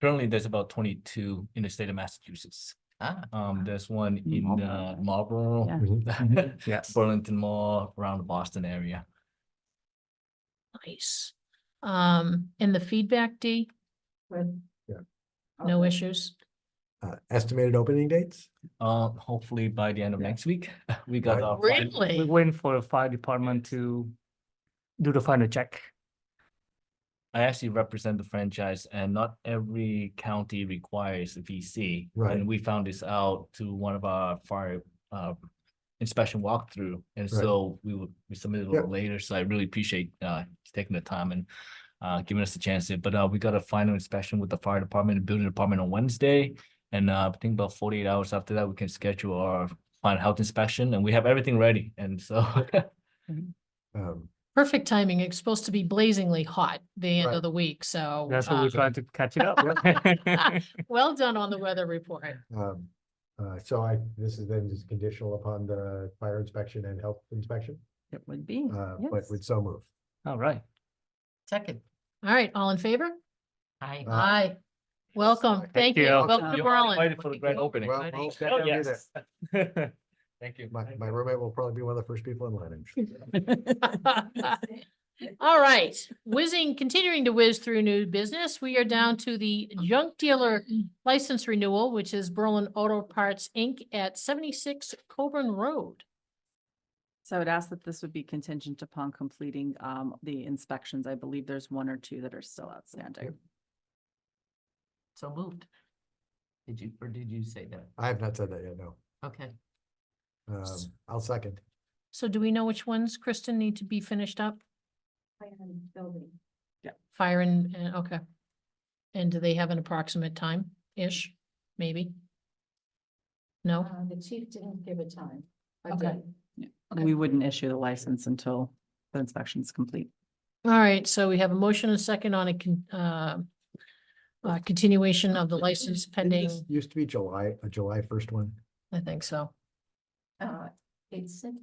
Currently, there's about twenty-two in the state of Massachusetts. Ah, Um, there's one in uh, Marlborough. Marlboro, Yeah. yes. Burlington Mall, around the Boston area. Nice. Um, and the feedback, D, no issues? Uh, estimated opening dates? Um, hopefully by the end of Yeah. next week, we got Right. our. final- Really? We're waiting for the fire department to do the final check. I actually represent the franchise and not every county requires a VC. Right. And we found this out to one of our fire uh inspection walkthrough. And Right. so we would, we submitted a Yeah. little later, so I really appreciate uh taking the time and uh giving us the chance to, but uh we got a final inspection with the fire department and building department on Wednesday. And uh I think about forty-eight hours after that, we can schedule our final health inspection and we have everything ready. And so Um, Perfect timing. It's supposed to be blazingly hot the end Right. of the week, so. That's what uh, we're trying to catch it up. Well done on the weather report. um, uh, so I, this is then just conditional upon the fire inspection and health inspection, It would be, uh, but Hmm, yes. with so move. All right. Second, All right, all in favor? I. Uh, Aye. Welcome. Thank you. you. Welcome to you're Berlin. invited for the grand opening. Well, Ready? well, step Oh, down here then. yes. Thank you. My, my roommate will probably be one of the first people in line. I'm sure. All right, whizzing, continuing to whiz through new business, we are down to the junk dealer license renewal, which is Berlin Auto Parts, Inc. at seventy-six Coburn Road. So I would ask that this would be contingent upon completing um the inspections. I believe there's one or two that are still outstanding. So moved. Did you, or did you say that? I have not said that yet, no. Okay. Um, I'll second. So do we know which ones, Kristen, need to be finished up? Fire and, and- okay. And do they have an approximate time-ish, maybe? No? The chief didn't give a time. Okay. Okay. We wouldn't issue the license until the inspection's complete. All right, so we have a motion and a second on a con- uh, uh, continuation of the license Didn't pending, this Used to be July, a July first one. I think so. Uh, it said.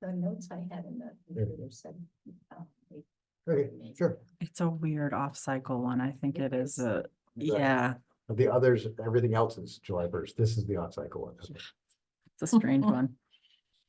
The notes I had in the computer said. uh, it- Okay, sure. It's a weird off-cycle one. I think it is a, yeah, But The others, everything else is July first. This is the on-cycle one. Okay. it's a strange one.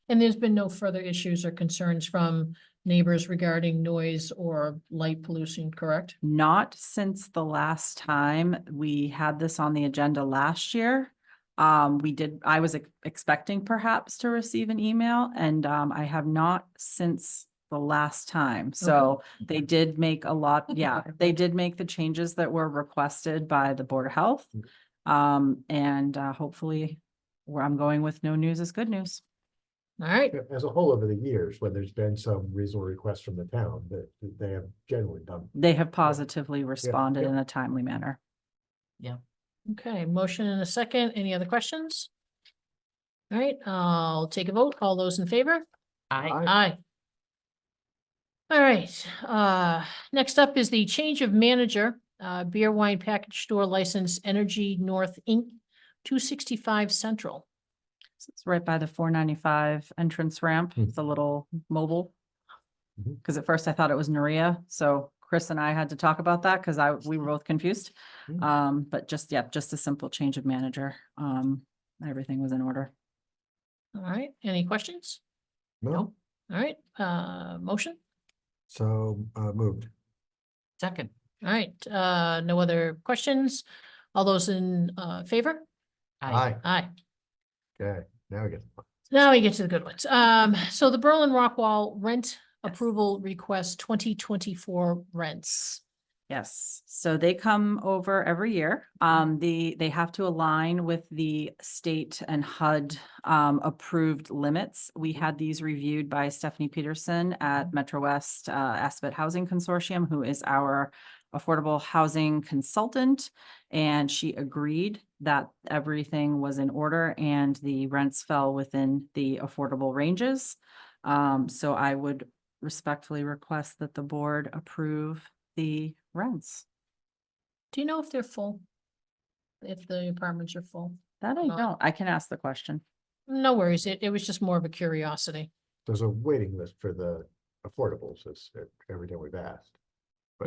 And there's been no further issues or concerns from neighbors regarding noise or light pollution, correct? Not since the last time we had this on the agenda last year. Um, we did, I was ex- expecting perhaps to receive an email and um, I have not since the last time. So they did make a lot, yeah, they did make the changes that were requested by the Board of Health. Mm-hmm. Um, and uh, hopefully where I'm going with no news is good news. All right, Yeah, As a whole, over the years, when there's been some reasonable requests from the town, that that they have generally done. They have positively responded yeah. in a timely manner. okay, motion and a second. Any other questions? All right, I'll take a vote. All those in favor? I, I- Aye. All right, uh, next up is the change of manager, uh, beer wine package store license, Energy North Inc., two sixty-five Central. So It's right by the four ninety-five entrance ramp. Hmm. It's a little mobile. Mhm. Because at first I thought it was Naria, so Chris and I had to talk about that because I, we were both confused. Hmm. Um, but just, yep, just a simple change of manager. Um, everything was in order. All right, any questions? No, All right, uh, motion? so uh, moved. second, All right, uh, no other questions? All those in, uh, favor? I, Aye. Aye. Okay, now we get. Now we get to the good ones. Um, so the Berlin Rockwall rent approval request twenty twenty-four rents. Yes, so they come over every year. Um, the, they have to align with the state and HUD um, approved limits. We had these reviewed by Stephanie Peterson at Metro West uh, Aspet Housing Consortium, who is our affordable housing consultant. And she agreed that everything was in order and the rents fell within the affordable ranges. Um, so I would respectfully request that the board approve the rents. Do you know if they're full? If the apartments are full? That I Not- don't, I can ask the question. No worries. It, it was just more of a curiosity. There's a waiting list for the affordables, is every time we've asked.